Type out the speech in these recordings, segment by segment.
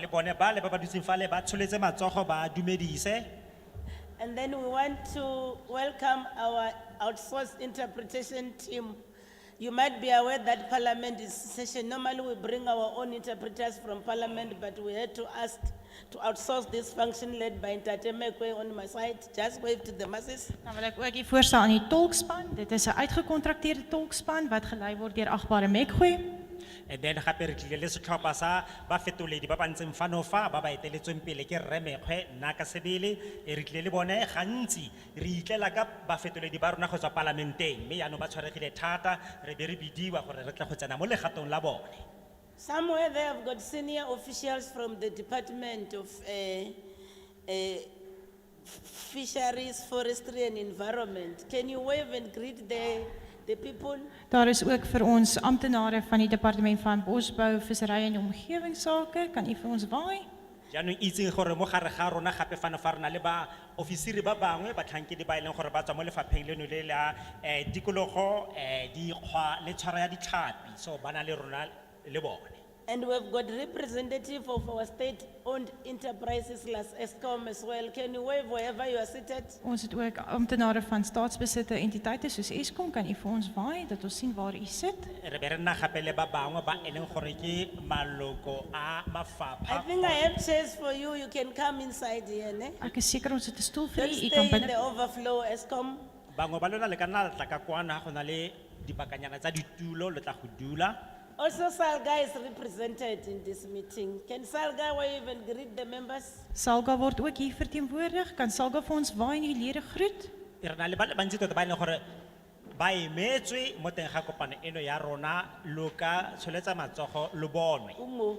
le bone ba le ba ba dutseng fale ba tsholetse matsogo ba dumedise. And then we want to welcome our outsourced interpretation team. You might be aware that parliament is session, normally we bring our own interpreters from parliament, but we had to ask to outsource this function led by Ntatemekwe on my side, just wave to the masses. Dan wil ek ook hier voorstel aan die tolkspan. Dit is 'n uitgekontrakteerde tolkspan wat gelei word deur Agbare Mekgoe. And then gape re tlile le setlhopha sa ba fetoledi ba ba ntseng fano fa ba ba eteletsweng pele ke Rre Mekgwe, nna ka sebele e re tlile le bone gantsi re itlela ka ba fetoledi ba rona go tswa palamenteng mme yaanong ba tshwaregile thata re be re bidiwa gore re tle go tsena mo legatong la bone Somewhere they have got senior officials from the Department of eh, eh, Fisheries, Forestry and Environment. Can you wave and greet the, the people? Daar is ook vir ons amptenare van die Departement van Bosbou, Visserry en Omgewingsake. Kan u vir ons waai? jaanong itseng gore mo gare ga rona gape fano fa re na le ba ofisiri ba bangwe batlhankedi ba e leng gore ba tswa mo lefapheng leno le la um tikologo um dikgwa le tshwaro ya ditlhapi so ba na le rona le bone And we've got representative of our state-owned enterprises, Las Eskom as well. Can you wave wherever you are seated? Ons het ook amptenare van staatsbesitte entiteite soos Eskom. Kan u vir ons waai dat ons sien waar u sit? re be re nna gape le ba bangwe ba e leng gore ke maloko a I mafapha think I have chairs for you, you can come inside here, ne? Ek is seker ons het 'n stoel vir Don't u. U kan stay in the binne. overflow, Eskom. bangwe ba lona le ka nna la tla ka kwana go na le dipakanyana tsa ditulo le tla go dula Also Salga is represented in this meeting. Can Salga wave and greet the members? Salga word ook hier verteenwoordig. Kan Salga vir ons waai en die lede groet? re na le ba le bantsi tota ba e leng gore ba emetswe mo teng ga kopano eno ya rona lo ka tsholetsa matsogo lo bonwe Umu,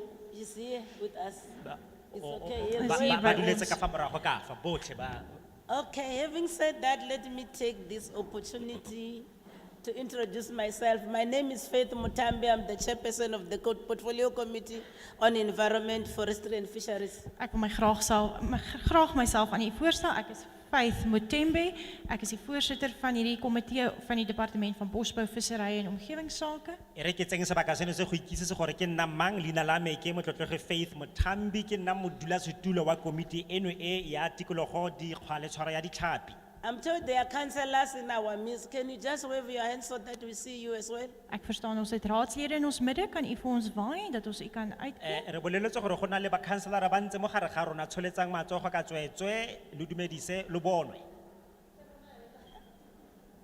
is here with us. Ba- It's o- o- okay, o- yes, ba- we ba- ba will. duletse ka fa morago ka fa botlhe ba Okay, having said that, let me take this opportunity to introduce myself. My name is Faith Mutambi, I'm the chairperson of the Code Portfolio Committee on Environment, Forestry and Fisheries. Ek wil my graag self my, graag myself aan u voorstel. Ek is Faith Mutembe. Ek is die voorsitter van hierdie komitee van die departement van bosbou, visserry en omgewingsake. e re ke tseng sebaka seno se go ikitsise gore ke nna mang leina la me ke motlotlege faith mothambi ke nna modulasetulo wa komiti eno e ya tikologo dikgwa le tshwaro ya ditlhapi I'm told there are councillors in our midst. Can you just wave your hand so that we see you as well? Ek verstaan ons het raadslede in ons midde. Kan u vir ons waai dat ons u kan uitkry? Eh, re boleletse gore go na le bakhanselara ba ntse mo gare ga rona tsholetsang matsogo ka tsweetswe lo dumedise lo bonwe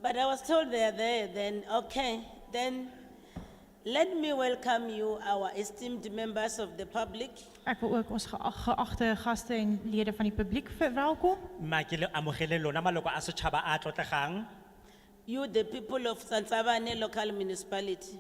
But I was told they are there then, okay, then let me welcome you, our esteemed members of the public. Ek wil ook ons geag- geagte gaste en lede van die publiek verwelkom. mma ke le amogele lona maloko a setšhaba a a tlotlegang You, the people of Sansavane local municipality.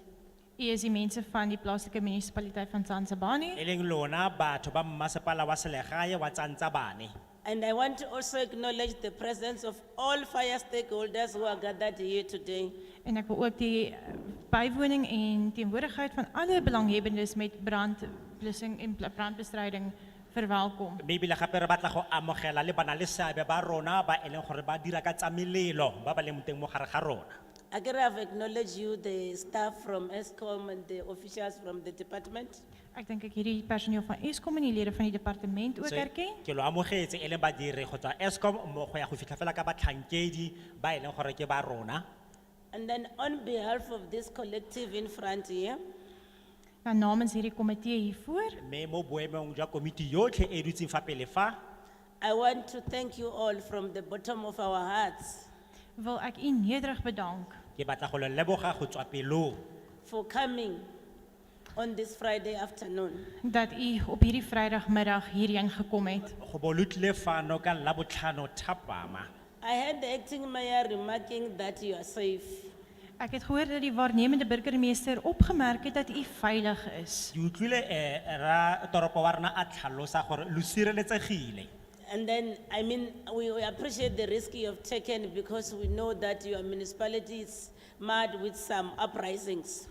U is die mense van die plaaslike munisipaliteit van Tsansebani e leng lona batho ba mmasepala wa selegae wa tsantsabane And I want to also acknowledge the presence of all fire stakeholders who are gathered here today. en ek wil ook die eh, bywoning en teenwoordigheid van alle belanghebbendes met brandblussing en pla- brandbestryding verwelkom. mme ebile gape re batla go amogela le bana le seabe ba rona ba e leng gore ba dira ka tsa melelo ba ba leng teng mo gare ga rona I can have acknowledged you, the staff from ESCOM and the officials from the department. Ek dink ek hierdie personeel van Eskom en die lede van die departement ook So, erken. ke lo amogetse e leng badiri go tswa escom mmogo ya go fitlha fela ka batlhankedi ba e leng gore ke ba rona And then on behalf of this collective in front here, Dan namens hierdie komitee hiervoor, mme mo boemong jwa komiti yotlhe e e dutseng fa pele fa I want to thank you all from the bottom of our hearts wil ek u nederig bedank ke batla go le leboga go tswa pelong for coming on this Friday afternoon. dat u op hierdie Vrydagmiddag hierheen gekom het. go bo lo tlile fano ka labotlhano thapama I heard the acting mayor remarking that you are safe. Ek het gehoor dat die waarnemende burgemeester opgemerk het dat u veilig is. ke utlwile eh ra toropo wa rena a tlhalosa gore lo sireletsegile And then, I mean, we we appreciate the risk you have taken because we know that your municipality is mad with some uprisings.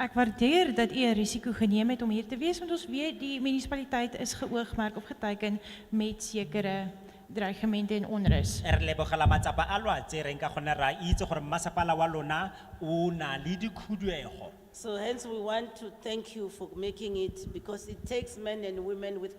Ek waardeer dat u 'n risiko geneem het om hier te wees want ons weet die munisipaliteit is geoogmerk of geteken met sekere dreigemente en onrus. Eh, re lebogela matsapa a lo a tsereng ka gonne re a itse gore mmasepala wa lona o na le dikhuduego So hence, we want to thank you for making it because it takes men and women with